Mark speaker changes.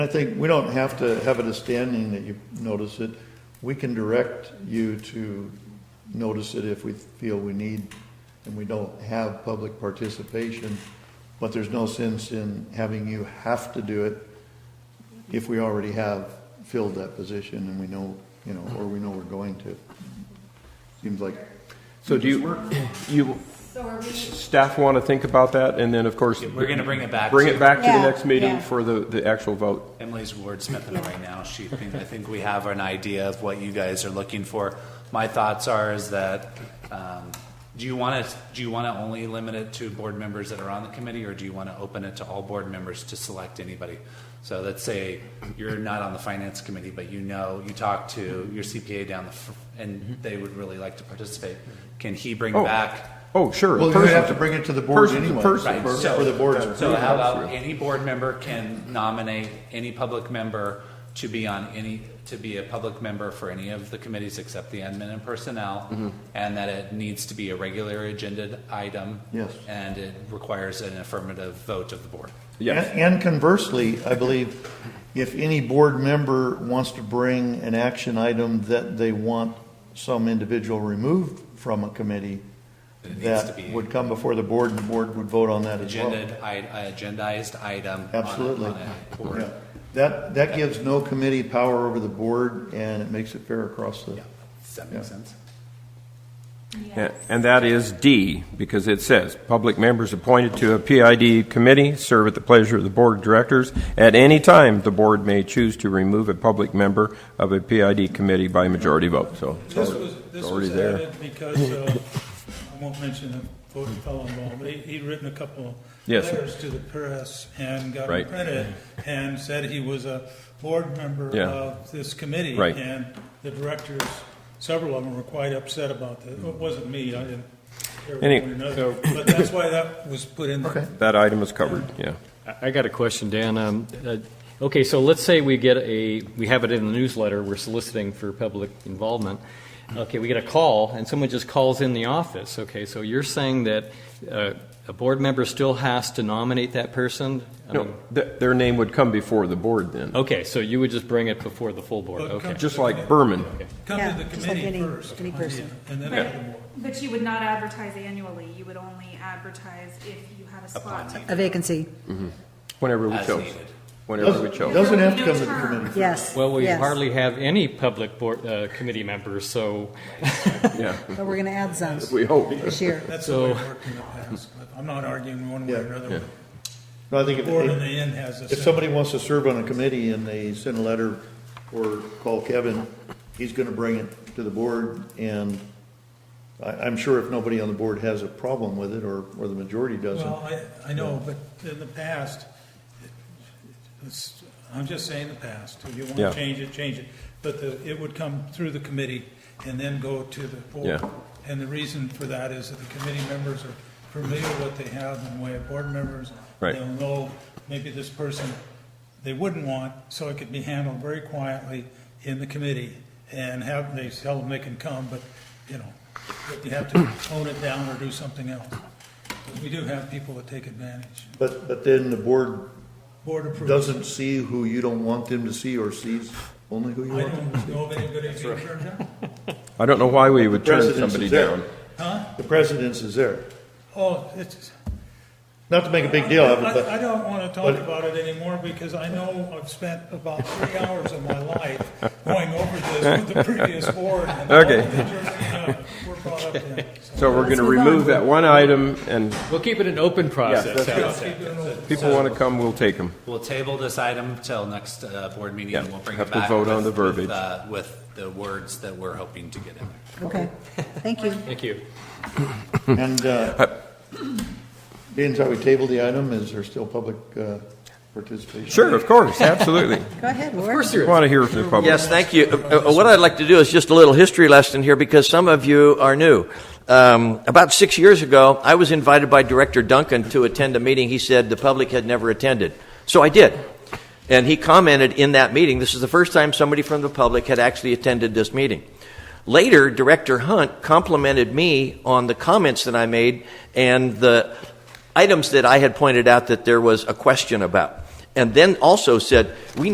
Speaker 1: I think we don't have to have it as standing that you notice it. We can direct you to notice it if we feel we need, and we don't have public participation. But there's no sense in having you have to do it if we already have filled that position and we know, you know, or we know we're going to. Seems like,
Speaker 2: So do you, you,
Speaker 3: So are we,
Speaker 2: staff want to think about that, and then, of course.
Speaker 4: We're gonna bring it back
Speaker 2: Bring it
Speaker 4: to-
Speaker 2: back to the
Speaker 5: Yeah,
Speaker 2: next meeting
Speaker 5: yeah.
Speaker 2: for the, the actual vote.
Speaker 4: Emily's wordsmithing it right now. She, thinks- I think we have an idea of what you guys are looking for. My thoughts are is that, um, do you want to, do you want to only limit it to board members that are on the committee, or do you want to open it to all board members to select anybody? So let's say you're not on the finance committee, but you know, you talk to your CPA down the, fr- and they would really like to participate. Can he bring
Speaker 2: Oh.
Speaker 4: back?
Speaker 2: Oh, sure.
Speaker 1: well, you
Speaker 2: person.
Speaker 1: have to bring it to the board
Speaker 2: Person to
Speaker 1: anyway, for
Speaker 2: person.
Speaker 4: Right, so-
Speaker 1: for the board.
Speaker 4: So how about any board member can nominate any public member to be on any, to be a public member for any of the committees except the admin and personnel?
Speaker 1: Mm-hmm.
Speaker 4: And that it needs to be a regular agenda item?
Speaker 1: Yes.
Speaker 4: And it requires an affirmative vote of the board?
Speaker 2: Yes,
Speaker 1: And and conversely, I believe if any board member wants to bring an action item that they want some individual removed from a committee,
Speaker 4: It needs to
Speaker 1: that
Speaker 4: be-
Speaker 1: would come before the board and the board would vote on that as well.
Speaker 4: Agenda, agendized item? on a-
Speaker 1: Absolutely.
Speaker 4: on a board.
Speaker 1: Yeah. That, that gives no committee power over the board and it makes it fair across the,
Speaker 4: Yeah. Does that make
Speaker 1: Yeah.
Speaker 4: sense?
Speaker 2: A- and that is D, because it says, "Public members appointed to a PID committee serve at the pleasure of the Board of Directors. At any time, the board may choose to remove a public member of a PID committee by majority vote." So it's
Speaker 6: This
Speaker 2: already-
Speaker 6: was,
Speaker 2: it's
Speaker 6: this
Speaker 2: already
Speaker 6: was
Speaker 2: there.
Speaker 6: added because, uh, I won't mention the voting fellow involved, but he, he'd written a couple
Speaker 2: Yes.
Speaker 6: letters to the press and got
Speaker 2: Right.
Speaker 6: credit and said he was a board member
Speaker 2: Yeah.
Speaker 6: of this committee.
Speaker 2: Right.
Speaker 6: And the directors, several of them were quite upset about that. It wasn't me, I didn't care
Speaker 2: Any-
Speaker 6: one way or another. But that's why that was put in there.
Speaker 2: That item is covered, yeah.
Speaker 7: I- I got a question, Dan. Um, uh, Okay, so let's say we get a, we have it in the newsletter, we're soliciting for public involvement. Okay, we get a call, and someone just calls in the office. Okay, so you're saying that uh, a board member still has to nominate that person? I
Speaker 2: No,
Speaker 7: mean,
Speaker 2: th- their name would come before the board then,
Speaker 7: Okay, so you would just bring it before the full board,
Speaker 6: But
Speaker 7: okay.
Speaker 6: come-
Speaker 2: just like Berman.
Speaker 6: Come
Speaker 5: Yeah,
Speaker 6: to the
Speaker 5: just like
Speaker 6: committee
Speaker 5: any-
Speaker 6: first.
Speaker 5: any
Speaker 6: yeah,
Speaker 5: person.
Speaker 6: And then.
Speaker 3: but,
Speaker 6: the board.
Speaker 3: but you would not advertise annually, you would only advertise if you had a spot.
Speaker 5: A vacancy,
Speaker 2: Whenever we
Speaker 4: As
Speaker 2: chose.
Speaker 4: needed.
Speaker 2: Whenever we chose.
Speaker 1: doesn't have to
Speaker 3: No
Speaker 1: come to the
Speaker 3: term.
Speaker 1: committee.
Speaker 5: yes.
Speaker 7: Well, we
Speaker 5: yes.
Speaker 7: hardly have any public board, uh, committee members, so,
Speaker 2: Yeah,
Speaker 5: But we're going to add some
Speaker 2: we hope.
Speaker 5: this year.
Speaker 6: That's the way it worked in the past. but I'm not arguing one way or another.
Speaker 1: No, I think
Speaker 6: The
Speaker 1: if-
Speaker 6: board in the end has a.
Speaker 1: If
Speaker 6: say.
Speaker 1: somebody wants to serve on a committee and they send a letter or call Kevin, he's gonna bring it to the board, and I, I'm sure if nobody on the board has a problem with it, or, or the majority doesn't.
Speaker 6: Well, I, I know, but in the past, it's, I'm just saying the past. If you want
Speaker 2: Yeah.
Speaker 6: to change it, change it. But the, it would come through the committee and then go to the board.
Speaker 2: Yeah.
Speaker 6: And the reason for that is that the committee members are familiar with what they have in the way of board members.
Speaker 2: Right.
Speaker 6: They'll know maybe this person they wouldn't want, so it could be handled very quietly in the committee and have, they tell them they can come, but, you know, but you have to tone it down or do something else. We do have people that take advantage.
Speaker 1: But, but then the board
Speaker 6: Board approved.
Speaker 1: doesn't see who you don't want them to see, or sees only who you
Speaker 6: I
Speaker 1: want them to
Speaker 6: don't know of any good examples right now.
Speaker 2: I don't know why we would turn
Speaker 1: President's
Speaker 2: somebody
Speaker 1: is there.
Speaker 2: down.
Speaker 1: see. The precedence is there.
Speaker 6: Oh, it's.
Speaker 1: Not to make a big deal of
Speaker 6: I-
Speaker 1: it, but,
Speaker 6: I don't want to talk
Speaker 1: but-
Speaker 6: about it anymore because I know I've spent about three hours of my life going over this with the previous board. and all
Speaker 2: Okay.
Speaker 6: the jury, uh, We're brought up in.
Speaker 2: So we're going to
Speaker 5: move on.
Speaker 2: remove that one item, and
Speaker 7: we'll keep it an open process.
Speaker 2: that's-
Speaker 6: Yeah, keep doing it.
Speaker 2: people want to come, we'll take them.
Speaker 4: We'll table this item till next uh, board meeting, and
Speaker 2: Yeah,
Speaker 4: we'll bring
Speaker 2: have
Speaker 4: it
Speaker 2: to
Speaker 4: back.
Speaker 2: vote on
Speaker 4: with-
Speaker 2: the verbiage.
Speaker 4: with, uh, With the words that we're hoping to get in there.
Speaker 5: Okay, thank you.
Speaker 7: Thank you.
Speaker 1: and, uh, being that we tabled the item, is there still public, uh, participation?
Speaker 2: Sure, of course, absolutely.
Speaker 5: Go ahead, Ward.
Speaker 2: We want to hear from the public.
Speaker 8: Yes, thank you. Uh, uh, What I'd like to do is just a little history lesson here because some of you are new. Um, about six years ago, I was invited by Director Duncan to attend a meeting he said the public had never attended. So I did. And he commented in that meeting, this is the first time somebody from the public had actually attended this meeting. Later, Director Hunt complimented me on the comments that I made and the items that I had pointed out that there was a question about. And then also said, we